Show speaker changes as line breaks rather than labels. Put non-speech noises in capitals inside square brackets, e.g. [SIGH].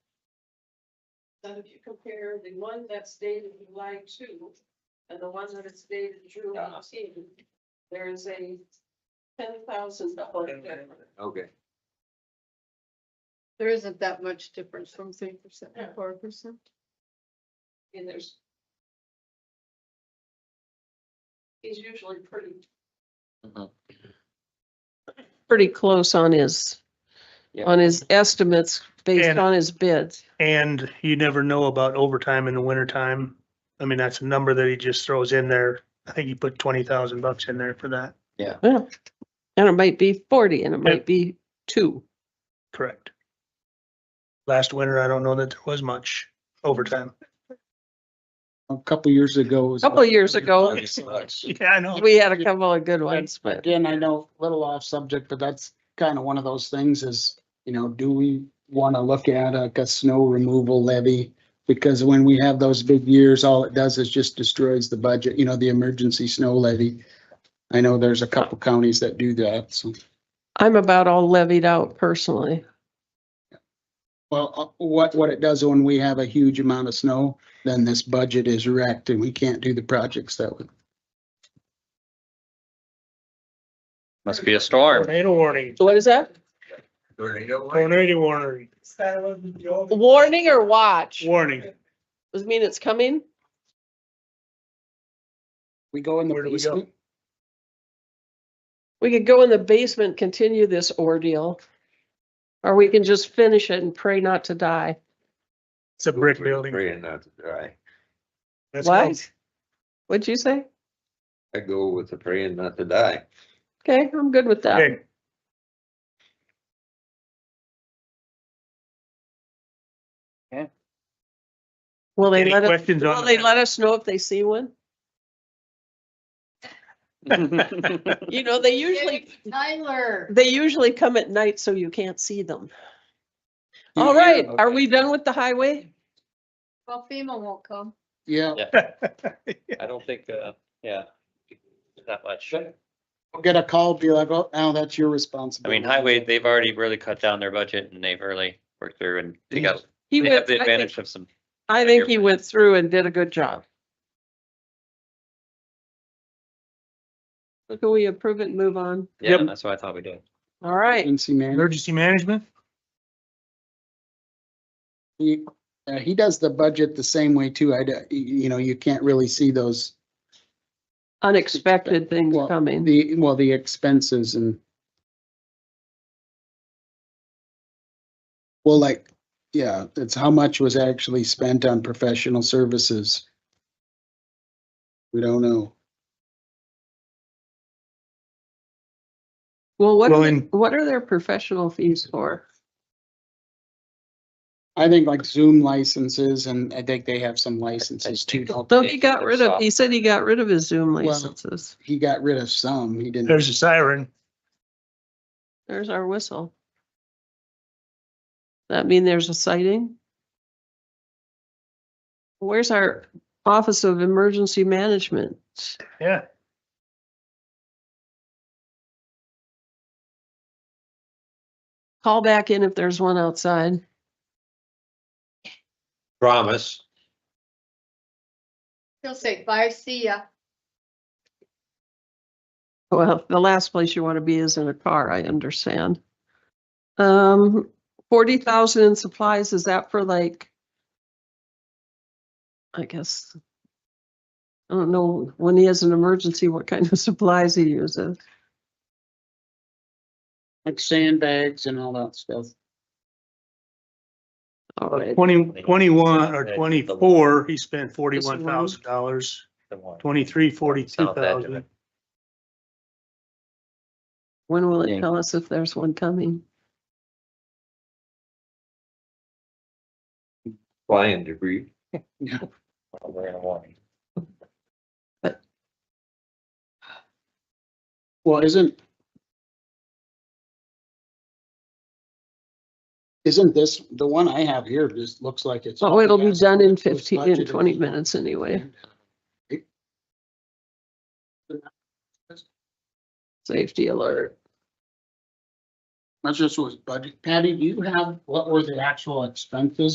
Then if you compare the one that's dated July two and the one that is dated June
Yeah.
eighteen, there is a ten thousand dollar difference.
Okay,
There isn't that much difference from three percent to
Yeah.
four percent.
And there's. He's usually pretty.
Mm-hmm.
Mhm.
pretty close on his,
Yeah.
on his estimates based
And-
on his bids.
And you never know about overtime in the winter time. I mean, that's a number that he just throws in there. I think he put twenty thousand bucks in there for that.
Yeah. And it might be forty and it might be two.
Correct. Last winter, I don't know that there was much overtime. [LAUGHS]
A couple years ago. was-
A Couple of years ago,
Thanks so much.
Yeah, I know.
we had a couple of good ones, but
Again, I know, a little off subject, but that's kind of one of those things is, you know, do we want to look at uh, like a snow removal levy? Because when we have those big years, all it does is just destroys the budget, you know, the emergency snow levy. I know there's a couple counties that do that, so.
I'm about all levied out personally.
Well, uh, what, what it does when we have a huge amount of snow, then this budget is wrecked and we can't do the projects that would.
Must be a storm.
Tornado warning,
What is that?
tornado warning,
Warning or watch?
warning.
Does it mean it's coming?
We go in the
Where do we go?
basement.
We could go in the basement, continue this ordeal. Or we can just finish it and pray not to die.
It's a brick building.
Praying not to die.
That's how-
What? What'd you say?
I go with the praying not to die.
Okay, I'm good with that.
Okay,
Will they
any
let us,
questions
will
on?
they let us know if they see one?
that?
You know, they usually,
Tyler.
they usually come at night so you can't see them. [LAUGHS] All right, are we done with the highway?
Well, FEMA won't come.
Yeah,
I don't think, uh, yeah. Not much.
we'll get a call, be like, oh, now that's your
I
responsibility.
mean, highway, they've already really cut down their budget and they've really worked through and they got,
He
they have
went,
the
I think,
advantage of some,
I think he went through and did a good job. So Can we approve it and move on?
yeah,
Yep.
that's what I thought we did.
All right,
Agency manager.
Emergency management?
He, uh, he does the budget the same way too. I, d- you know, you can't really see those,
unexpected things
Well,
coming.
the, well, the expenses and. Well, like, yeah, it's how much was actually spent on professional services. We don't know.
Well, what,
Well,
are-
in-
what are their professional fees for?
I think like Zoom licenses and I think they have some licenses too. don't
So
they?
he got rid of, he said he got rid of his Zoom
Well-
licenses.
He got rid of some. He didn't.
There's a siren.
There's our whistle. That mean there's a sighting? Where's our Office of Emergency Management?
Yeah.
Call back in if there's one outside.
Promise.
He'll say, bye, see ya.
Well, the last place you want to be is in a car, I understand. Um, forty thousand in supplies, is that for like? I guess. I don't know, when he has an emergency, what kind of [LAUGHS] supplies he uses.
Like sandbags and all that stuff.
All right,
Twenty, twenty-one or twenty-four, he spent forty-one thousand dollars,
The one.
twenty-three, forty-two
Sounds bad to me.
thousand.
when will it
Yeah.
tell us if there's one coming?
Flying debris.
We're in a warning.
Well, isn't. Isn't this, the one I have here just looks like it's.
Oh, it'll be done in fifteen, in
budgeted.
twenty minutes anyway,
uh,
safety alert.
That's just what's budget. Patty, do you have, what were the actual expenses